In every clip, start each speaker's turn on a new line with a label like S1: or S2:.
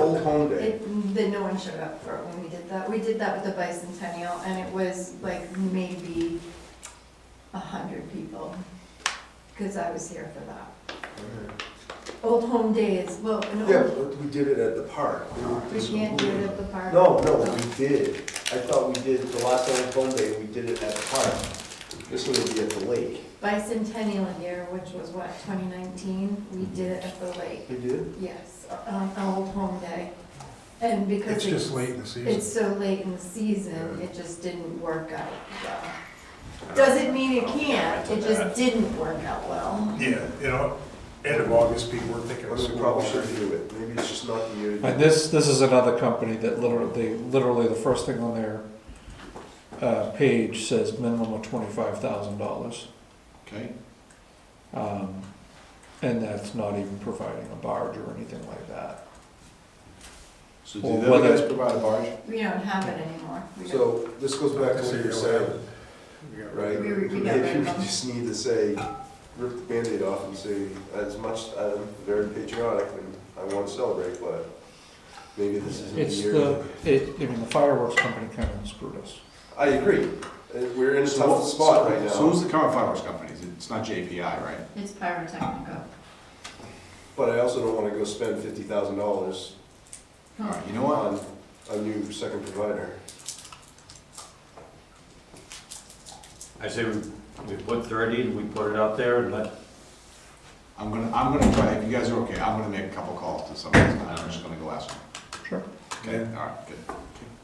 S1: home day.
S2: It, then no one showed up for it when we did that. We did that with the bicentennial, and it was like maybe a hundred people, because I was here for that. Old home days, well,
S1: Yeah,
S2: no,
S1: but we did it at the park.
S2: we can't do it at the park.
S1: No, no, we did. I thought we did, the last time home day, we did it at the park. This one would be at the lake.
S2: Bicentennial year, which was what, twenty nineteen, we did it at the lake,
S1: We did?
S2: yes, on Old Home Day. And because
S3: It's just late
S2: it's,
S3: in the season.
S2: it's so late in the season, it just didn't work out well. Doesn't mean it
S4: Oh,
S2: can't, it just didn't work out well.
S3: Yeah, you know, end of August, people were thinking.
S1: Unless we probably should do it. Maybe it's just not the year.
S5: And this, this is another company that literally, literally the first thing on their, uh, page says minimum of twenty-five thousand dollars.
S6: Okay,
S5: Um, and that's not even providing a barge or anything like that.
S6: so
S5: Well,
S6: do the other
S5: whether-
S6: guys provide a barge?
S2: We don't have it anymore. We don't-
S1: So this goes back to what you were saying, right?
S2: We- we got
S1: Maybe
S2: rid
S1: we
S2: of them.
S1: just need to say, rip the Band-Aid off and say, as much, I'm very patriotic and I want to celebrate, but maybe this isn't the
S5: It's
S1: year.
S5: the, it, I mean, the fireworks company kind of screwed us.
S1: I agree. Uh, We're in a
S6: So
S1: tough
S6: what-
S1: spot
S6: so-
S1: right now.
S6: So who's the current fireworks company? Is it- It's not JPI, right?
S2: It's pyrotechnical.
S1: But I also don't wanna go spend fifty thousand dollars
S6: All right, you know what?
S1: on a new second provider.
S4: I say we, we put thirty and we put it out there and let,
S6: I'm gonna, I'm gonna try, if you guys are okay, I'm gonna make a couple calls to some of these, guys. I'm just gonna go ask them.
S5: Sure.
S6: Okay, all right, good.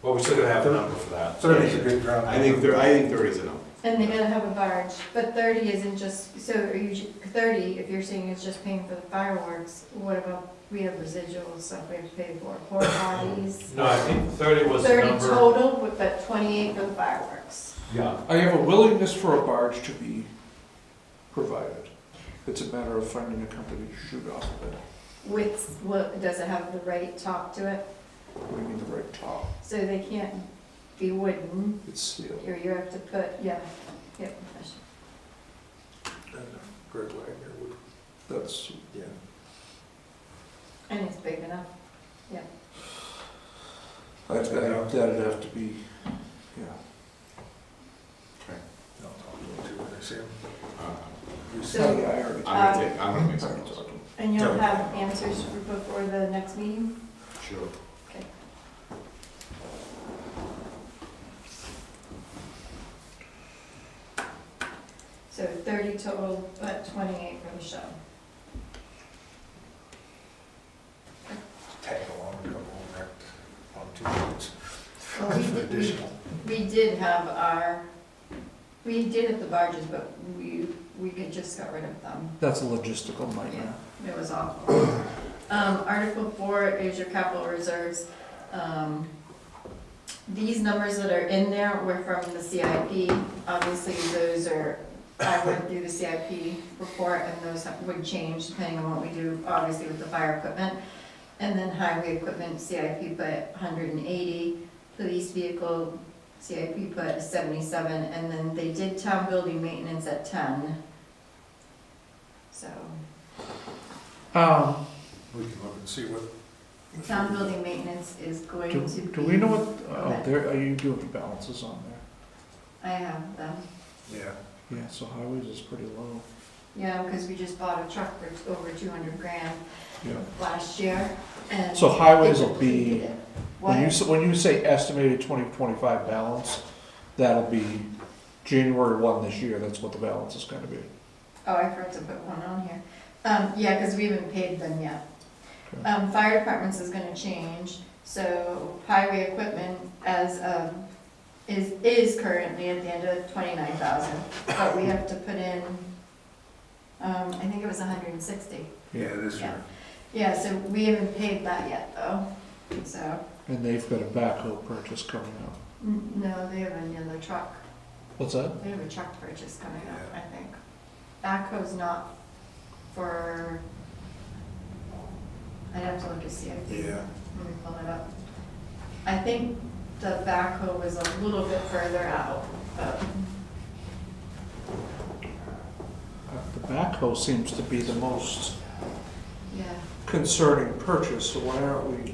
S4: well, we still gotta have a number for that.
S3: Thirty's a good ground.
S6: I think there, I think there is a number.
S2: And they gotta have a barge, but thirty isn't just, so are you, ju- thirty, if you're saying it's just paying for the fireworks, what about, we have residual stuff we have to pay for, porta potties?
S4: No, I think thirty was the
S2: Thirty
S4: number.
S2: total, but- but twenty-eight for the fireworks.
S4: Yeah,
S5: I have a willingness for a barge to be provided. It's a matter of finding a company to shoot off of it.
S2: With, what, does it have the right top to it?
S5: We need the right top.
S2: So they can't be wooden,
S5: It's steel.
S2: or you have to put, yeah, yep. I should-
S3: Greg Wagner would,
S5: That's,
S3: yeah.
S2: And it's big enough.
S5: that- that- that'd have to be, yeah.
S3: I'll talk to him too, when I see him.
S6: Uh,
S2: So-
S5: Yeah, I already-
S6: I'm gonna take, I'm gonna make some calls.
S2: And you'll have answers for before the next meeting?
S1: Sure.
S2: Okay. So thirty total, but twenty-eight for the show.
S3: Tag along and come over on two minutes.
S2: Well, we did- we-
S3: Additional.
S2: We did have our, we did at the barges, but we, we could just got rid of them.
S5: That's a logistical
S2: Yeah,
S5: nightmare.
S2: it was awful. Um, Article four is your capital reserves. Um, These numbers that are in there were from the CIP. Obviously, those are, I went through the CIP report and those would change depending on what we do, obviously with the fire equipment. And then highway equipment, CIP put hundred and eighty, police vehicle, CIP put seventy-seven, and then they did town building maintenance at ten. So.
S5: Um,
S3: We can look and see what.
S2: Town building maintenance is
S5: do,
S2: going to be.
S5: do we know what, oh, there, are you doing the balances on there?
S2: I have them,
S3: Yeah,
S5: Yeah, so highways is pretty low.
S2: yeah, because we just bought a truck for t- over two hundred grand
S5: Yeah.
S2: last year, and.
S5: So highways will be-
S2: it.
S5: When you,
S2: What?
S5: s- when you say estimated twenty twenty-five balance, that'll be January one this year, that's what the balance is gonna be.
S2: Oh, I forgot to put one on here. Um, yeah, because we haven't paid them yet.
S5: Okay.
S2: Um, fire departments is gonna change, so highway equipment as, um, is, is currently at the end of twenty-nine thousand, but we have to put in, um, I think it was hundred and sixty.
S3: yeah, this
S2: Yeah.
S3: year.
S2: Yeah, so we haven't paid that yet, though, so,
S5: And they've got a backhoe purchase coming up.
S2: n- no, they have another truck,
S5: What's that?
S2: they have a truck purchase coming up, I think. Backhoe's not for, I'd have to look to see if,
S3: Yeah,
S2: let me pull it up. I think the backhoe was a little bit further out, but,
S5: Uh, The backhoe seems to be the most
S2: yeah.
S5: concerning purchase, so why aren't we